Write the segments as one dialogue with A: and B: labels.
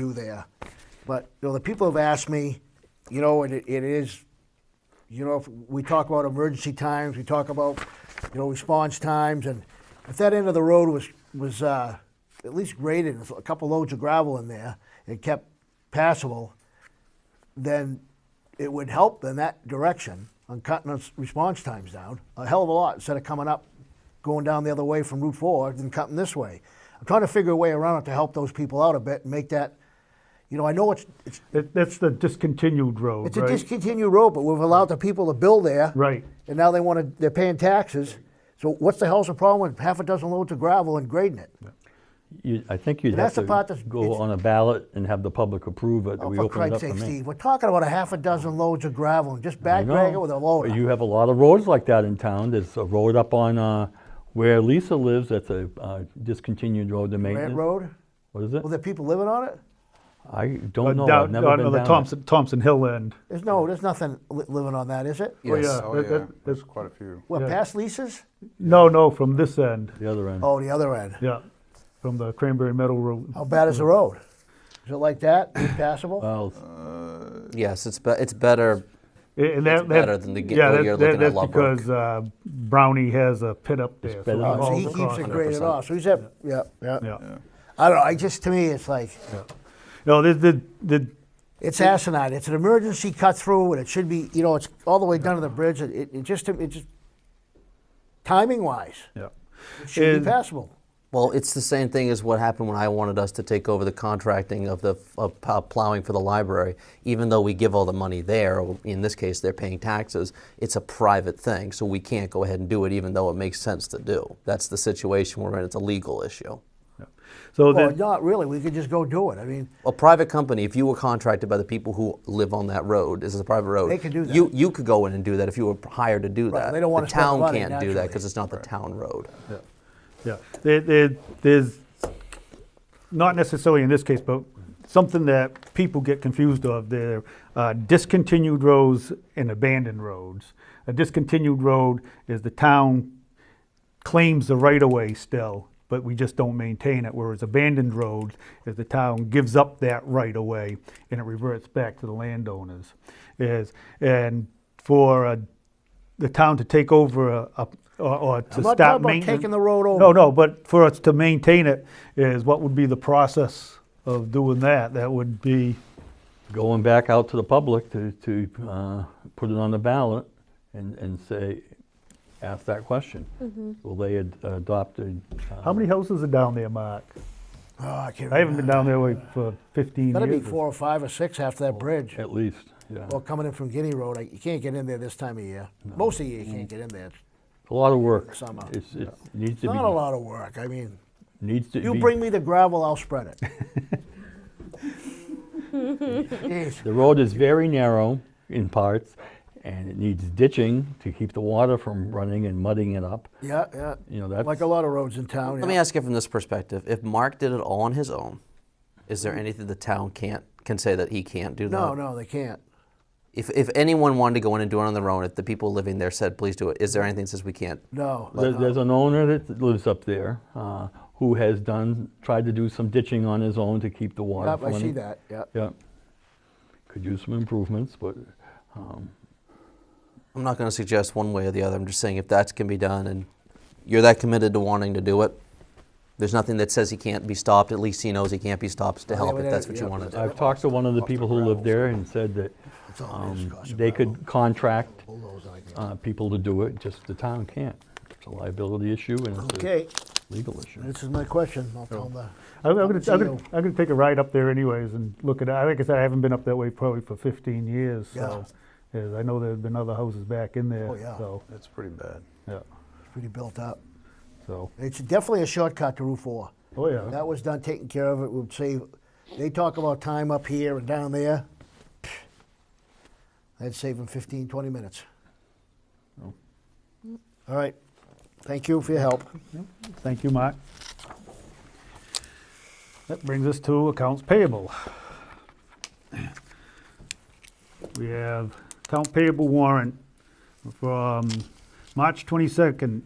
A: do there. But, you know, the people have asked me, you know, and it, it is, you know, if we talk about emergency times, we talk about, you know, response times, and if that end of the road was, was uh, at least graded, with a couple loads of gravel in there, and kept passable, then it would help in that direction on cutting its response times down a hell of a lot instead of coming up, going down the other way from Route 4 than cutting this way. I'm trying to figure a way around it to help those people out a bit and make that, you know, I know it's it's,
B: That, that's the discontinued road,
A: it's
B: right?
A: a discontinued road, but we've allowed the people to build there,
B: Right.
A: And now they want to they're paying taxes. So what's the hell's the problem with half a dozen loads of gravel and grading it?
C: You, I think you'd
A: And
C: have
A: that's the
C: to
A: part that's-
C: go
A: it's-
C: on a ballot and have the public approve it, that
A: Oh,
C: we
A: for
C: open it
A: Christ's
C: up for
A: sake,
C: me.
A: Steve, we're talking about a half a dozen loads of gravel and just
C: I
A: back drag
C: know.
A: it with a loader.
C: You have a lot of roads like that in town. There's a road up on, uh, where Lisa lives, that's a, uh, discontinued road to
A: Grant
C: maintenance.
A: Road?
C: What is it?
A: Well, there are people living on it?
C: I
B: Uh,
C: don't know, Oh, I've
B: down-
C: never
B: down
C: been
B: on the
C: down it.
B: Thompson, Thompson Hill end.
A: There's no, there's nothing li- living on that, is it?
B: Oh,
D: Yes,
B: yeah,
D: oh,
B: that-
D: yeah,
B: that-
D: there's
B: that-
D: quite a few.
A: What,
B: Yeah.
A: past leases?
B: No, no, from this end.
C: The other end.
A: Oh, the other end.
B: Yeah, from the Cranberry Meadow Road.
A: How bad is
B: Mm-hmm.
A: the road? Is it like that?
B: Uh,
A: Impassable?
C: Well,
E: Yes, it's be- it's better.
B: And- And that, that-
E: better than to get-
B: yeah,
E: though
B: that-
E: you're
B: that-
E: looking at
B: that's
E: lump work.
B: because uh, Brownie has a pit up there.
C: better
B: so
C: than-
A: Oh, so
B: all
A: he
B: the
A: keeps
B: cost-
A: it graded off. So he's at, yeah, yeah.
B: Yeah.
A: I don't know. I just, to me, it's like,
B: No, the, the, the,
A: it's asinine. It's an emergency cut through and it should be, you know, it's all the way down to the bridge. It, it- it just, it just, timing wise,
B: yeah.
A: it should
B: And-
A: be passable.
E: Well, it's the same thing as what happened when I wanted us to take over the contracting of the of p- plowing for the library. Even though we give all the money there, or in this case, they're paying taxes. It's a private thing, so we can't go ahead and do it, even though it makes sense to do. That's the situation we're in. It's a legal issue.
B: So
A: Well,
B: that,
A: not really. We could just go do it. I mean,
E: A private company, if you were contracted by the people who live on that road, this is a private road.
A: They can do that.
E: You you could go in and do that if you were hired to do
A: Right,
E: that.
A: they don't wanna
E: the
A: spend
E: town
A: money,
E: can't do that
A: naturally.
E: because it's not the town road.
B: yeah, there, there, there's, not necessarily in this case, but something that people get confused of, they're uh, discontinued roads and abandoned roads. A discontinued road is the town claims the right of way still, but we just don't maintain it. Whereas abandoned roads is the town gives up that right of way and it reverts back to the landowners. Is and for uh, the town to take over a, a or, or to
A: I'm not
B: stop
A: talking about
B: maintenance.
A: taking the road over.
B: No, no, but for us to maintain it is what would be the process of doing that? That would be
C: going back out to the public to, to uh, put it on the ballot and, and say, ask that question. Will they ad- adopt a? uh,
B: how many houses are down there, Mark?
A: oh, I can't
B: I haven't
A: remember.
B: been down there like, for 15
A: Gotta be
B: years.
A: four or five or six after that bridge.
C: At least, yeah.
A: Well, coming in from Guinea Road, I, you can't get in there this time of year. Most of the
C: Mm.
A: year, you can't get in there. It's
C: A lot of work.
A: Summer.
C: It's, it needs to
A: not a
C: be,
A: lot of work. I mean,
C: needs to be.
A: you bring me the gravel, I'll spread it. Jeez.
C: The road is very narrow in parts, and it needs ditching to keep the water from running and mudding it up.
A: Yeah, yeah.
C: You know, that's.
A: like a lot of roads in town.
E: Let me ask you from this perspective: If Mark did it all on his own, is there anything the town can't can say that he can't do?
A: No,
E: that?
A: no, they can't.
E: If if anyone wanted to go in and do it on their own, if the people living there said, "Please do it," is there anything that says we can't?
A: No. Uh,
C: There- There's an owner that lives up there, uh, who has done, tried to do some ditching on his own to keep the water
A: Yep,
C: running.
A: I see that. Yeah.
C: Yeah. Could use some improvements, but, um,
E: I'm not going to suggest one way or the other. I'm just saying if that can be done, and you're that committed to wanting to do it, there's nothing that says he can't be stopped. At least he knows he can't be stopped to
A: Well, yeah,
E: help
A: but
E: if
A: that-
E: that's what you
A: yeah,
E: want to
A: but
E: do.
C: I've talked to one of the people who live there and said that,
A: It's all it is,
C: um,
A: gosh,
C: they
A: gravel.
C: could contract,
A: Bulldoze like that.
C: uh, people to do it, just the town can't. It's a liability issue and it's a
A: Okay,
C: legal issue.
A: this is my question. I'll tell them that.
B: I'm, I'm, gonna, I'm, gonna,
A: Geo.
B: I'm gonna take a ride up there anyways and look at it. Like I said, I haven't been up that way probably for 15 years. So yeah, I know there's been other houses back in there.
A: Oh, yeah.
B: So
D: It's pretty bad.
B: yeah.
A: It's pretty built up.
B: So
A: It's definitely a shortcut to Route 4.
B: oh yeah.
A: That was done, taken care of. It would save, they talk about time up here and down there. That'd save them 15, 20 minutes. All right. Thank you for your help.
B: Thank you, Mark. That brings us to accounts payable. We have account payable warrant from March 22nd,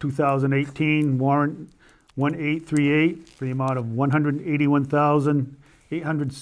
B: 2018, warrant 1838 for the amount of $181,886. eight hundred